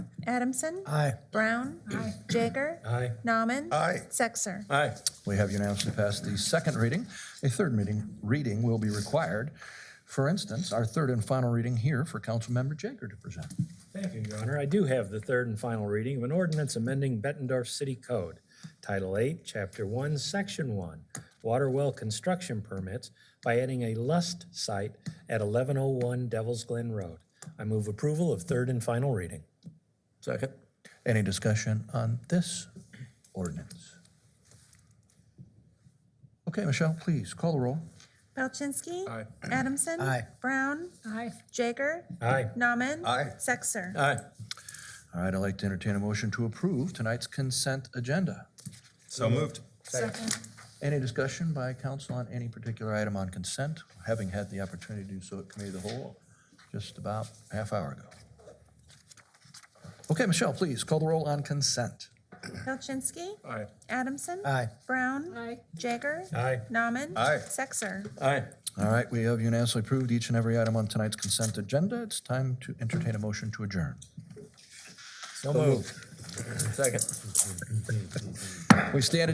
Adamson. Aye. Brown. Jaeger. Aye. Nauman. Aye. Sexer. Aye. We have unanimously passed the second reading. A third meeting, reading will be required. For instance, our third and final reading here for Councilmember Jager to present. Thank you, Your Honor. I do have the third and final reading of an ordinance amending Bettendorf City Code, Title 8, Chapter 1, Section 1, Water Well Construction Permits by adding a lust site at 1101 Devil's Glen Road. I move approval of third and final reading. Second. Any discussion on this ordinance? Okay, Michelle, please call the roll. Palczynski. Adamson. Aye. Brown. Aye. Jaeger. Aye. Nauman. Aye. Sexer. Aye. All right, I'd like to entertain a motion to approve tonight's consent agenda. So moved. Second. Any discussion by council on any particular item on consent, having had the opportunity to do so at committee of the whole just about a half hour ago? Okay, Michelle, please call the roll on consent. Palczynski. Aye. Adamson. Aye. Brown. Aye. Jaeger. Aye. Nauman. Aye. Sexer. Aye. All right, we have unanimously approved each and every item on tonight's consent agenda. It's time to entertain a motion to adjourn. So moved. Second. We stand